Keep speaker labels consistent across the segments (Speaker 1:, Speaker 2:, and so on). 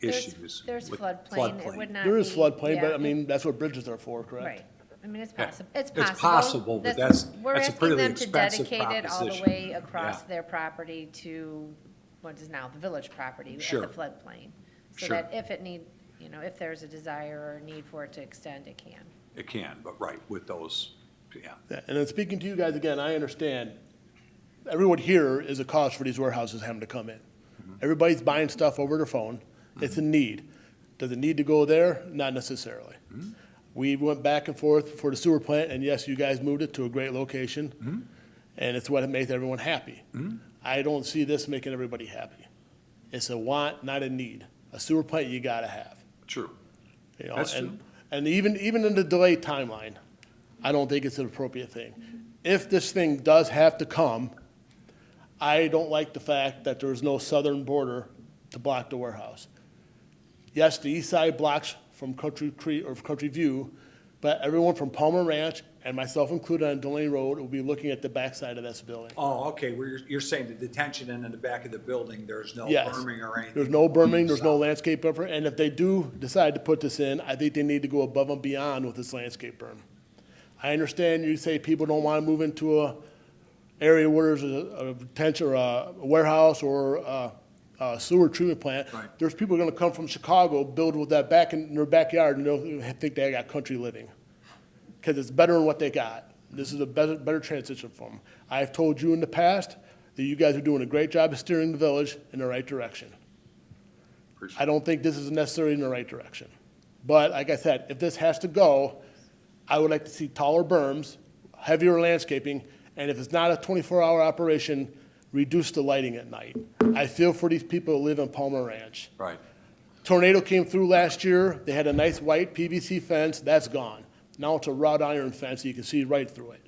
Speaker 1: There's-
Speaker 2: issues.
Speaker 1: There's
Speaker 2: with
Speaker 1: floodplain, it would not be.
Speaker 3: There is floodplain, but
Speaker 1: yeah,
Speaker 3: I mean, that's what bridges are for, correct?
Speaker 1: Right, I mean, it's
Speaker 2: Yeah.
Speaker 1: possible, it's
Speaker 2: It's
Speaker 1: possible.
Speaker 2: possible, but that's-
Speaker 1: We're
Speaker 2: that's a
Speaker 1: asking
Speaker 2: pretty
Speaker 1: them to
Speaker 2: expensive
Speaker 1: dedicate it all the
Speaker 2: proposition.
Speaker 1: way across
Speaker 2: Yeah.
Speaker 1: their property to what is now the village property at
Speaker 2: Sure.
Speaker 1: the floodplain. So
Speaker 2: Sure.
Speaker 1: that if it need, you know, if there's a desire or a need for it to extend, it can.
Speaker 2: It can, but right, with those, yeah.
Speaker 3: Yeah, And then speaking to you guys again, I understand, everyone here is a cost for these warehouses having to come in. Everybody's buying stuff over their phone, it's a need. Does it need to go there? Not necessarily. We went back and forth for the sewer plant, and yes, you guys moved it to a great location, and it's what makes everyone happy. I don't see this making everybody happy. It's a want, not a need. A sewer plant you gotta have.
Speaker 2: True.
Speaker 3: You know,
Speaker 2: That's
Speaker 3: and,
Speaker 2: true.
Speaker 3: and even, even in the delay timeline, I don't think it's an appropriate thing. If this thing does have to come, I don't like the fact that there's no southern border to block the warehouse. Yes, the east side blocks from Country Creek or Country View, but everyone from Palmer Ranch and myself included on Delaney Road will be looking at the backside of this building.
Speaker 2: Oh, okay, well, you're, you're saying the detention end in the back of the building, there's no
Speaker 3: Yes.
Speaker 2: berming or anything?
Speaker 3: There's no berming, there's no landscape buffer, and if they do decide to put this in, I think they need to go above and beyond with this landscape berm. I understand you say people don't wanna move into a area where there's a, a potential, or a warehouse or a, a sewer treatment plant.
Speaker 2: Right.
Speaker 3: There's people gonna come from Chicago, build with that back in their backyard, and they'll think they got country living because it's better than what they got. This is a better, better transition for them. I've told you in the past that you guys are doing a great job of steering the village in the right direction.
Speaker 2: Appreciate
Speaker 3: I don't think this is necessarily in the right direction. But like I said, if this has to go, I would like to see taller berms, heavier landscaping, and if it's not a 24-hour operation, reduce the lighting at night. I feel for these people who live in Palmer Ranch.
Speaker 2: Right,
Speaker 3: Tornado came through last year, they had a nice white PVC fence, that's gone. Now it's a wrought iron fence, you can see right through it.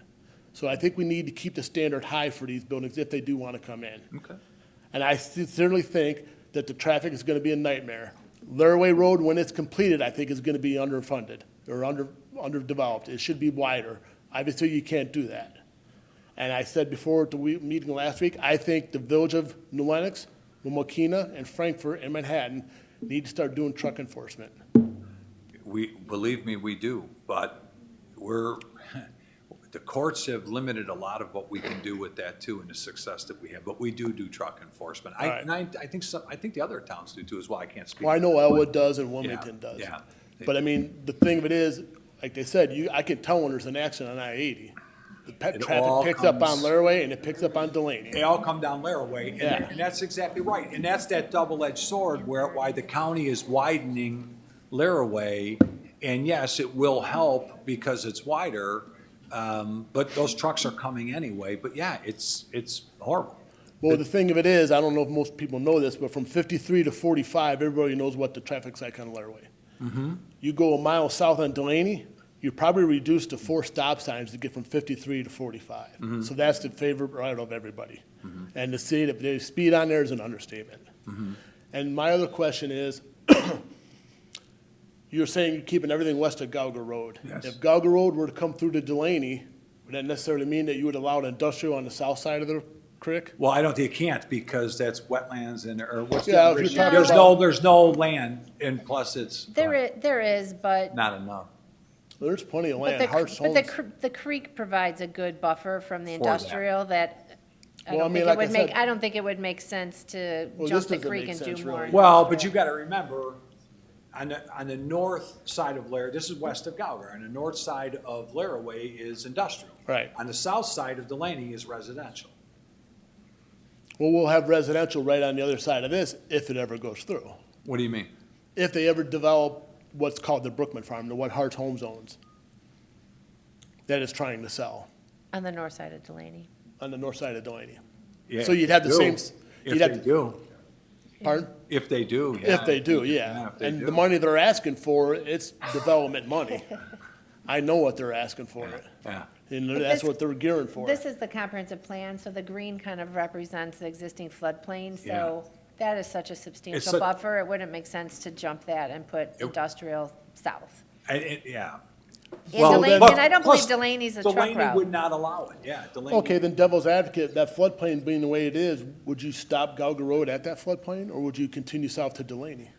Speaker 3: So I think we need to keep the standard high for these buildings if they do want to come in.
Speaker 2: okay.
Speaker 3: And I sincerely think that the traffic is going to be a nightmare. Laraway Road, when it's completed, I think is going to be underfunded or under, underdeveloped. It should be wider. Obviously, you can't do that. And I said before at the we- meeting last week, I think the village of New Lenox, Mokina, and Frankfurt and Manhattan need to start doing truck enforcement.
Speaker 2: We, believe me, we do, but we're, the courts have limited a lot of what we can do with that too and the success that we have, but we do do truck enforcement. I,
Speaker 3: All right.
Speaker 2: and I, I think some, I think the other towns do too as well, I can't speak.
Speaker 3: Well, I know
Speaker 2: for them,
Speaker 3: Elwood does and Wilmington does.
Speaker 2: yeah.
Speaker 3: But I mean, the thing of it is, like they said, you, I can tell when there's an accident on I-80. The pe-
Speaker 2: It all
Speaker 3: traffic picks up on
Speaker 2: comes-
Speaker 3: Laraway and it picks up on Delaney.
Speaker 2: They all come down Laraway, and,
Speaker 3: Yeah.
Speaker 2: and that's exactly right. And that's that double-edged sword where, why the county is widening Laraway. And yes, it will help because it's wider, um, but those trucks are coming anyway. But yeah, it's, it's horrible.
Speaker 3: Well, the thing of it is, I don't know if most people know this, but from 53 to 45, everybody knows what the traffic's like on Laraway. You go a mile south on Delaney, you're probably reduced to four stop signs to get from 53 to 45. So that's the favorite route of everybody. And to say that they speed on there is an understatement. And my other question is, you're saying you're keeping everything west of Gauger Road.
Speaker 2: Yes.
Speaker 3: If Gauger Road were to come through to Delaney, would that necessarily mean that you would allow an industrial on the south side of the creek?
Speaker 2: Well, I don't, think you can't because that's wetlands and, or what's
Speaker 3: Yeah, I
Speaker 2: the
Speaker 3: was
Speaker 2: bridge?
Speaker 3: just talking
Speaker 2: There's no,
Speaker 3: about-
Speaker 2: there's no land, and plus it's
Speaker 1: There is, there is, but.
Speaker 2: not enough.
Speaker 3: There's plenty of
Speaker 1: but
Speaker 3: land,
Speaker 1: the cr-
Speaker 3: Hart's
Speaker 1: But
Speaker 3: Homes.
Speaker 1: the, cr- the creek provides a good buffer from the
Speaker 2: For that.
Speaker 1: industrial that, I
Speaker 3: Well, I
Speaker 1: don't
Speaker 3: mean,
Speaker 1: think
Speaker 3: like
Speaker 1: it
Speaker 3: I
Speaker 1: would make,
Speaker 3: said-
Speaker 1: I don't think it would make sense to
Speaker 3: Well,
Speaker 1: jump
Speaker 3: this
Speaker 1: the
Speaker 3: doesn't
Speaker 1: creek
Speaker 3: make
Speaker 1: and
Speaker 3: sense,
Speaker 1: do
Speaker 3: really.
Speaker 1: more.
Speaker 2: Well, but you gotta remember, on the, on the north side of Lar, this is west of Gauger, on the north side of Laraway is industrial.
Speaker 3: Right.
Speaker 2: On the south side of Delaney is residential.
Speaker 3: Well, we'll have residential right on the other side of this if it ever goes through.
Speaker 2: What do you mean?
Speaker 3: If they ever develop what's called the Brookman Farm, the what Hart's Homes owns, that is trying to sell
Speaker 1: On the north side of Delaney.
Speaker 3: on the north side of Delaney. So you'd have the same s-
Speaker 2: If
Speaker 3: you'd have
Speaker 2: they
Speaker 3: to-
Speaker 2: do,
Speaker 3: Pardon?
Speaker 2: if they do, yeah.
Speaker 3: If they do,
Speaker 2: Yeah,
Speaker 3: yeah.
Speaker 2: if they
Speaker 3: And
Speaker 2: do.
Speaker 3: the money they're asking for, it's development money. I know what they're asking for it.
Speaker 2: Yeah.
Speaker 3: And
Speaker 1: But
Speaker 3: that's
Speaker 1: this-
Speaker 3: what they're gearing for.
Speaker 1: This is the comprehensive plan, so the green kind of represents the existing floodplain, so that is such a substantial
Speaker 2: such-
Speaker 1: buffer, it wouldn't make sense to jump that and put industrial south.
Speaker 2: And, it- yeah.
Speaker 1: And
Speaker 2: Well,
Speaker 1: Delaney,
Speaker 2: plus-
Speaker 1: and I don't
Speaker 2: plus
Speaker 1: believe Delaney's a truck
Speaker 2: Delaney would
Speaker 1: route.
Speaker 2: not allow it, yeah, Delaney.
Speaker 3: Okay, then devil's advocate, that floodplain being the way it is, would you stop Gauger Road at that floodplain, or would you continue south to Delaney?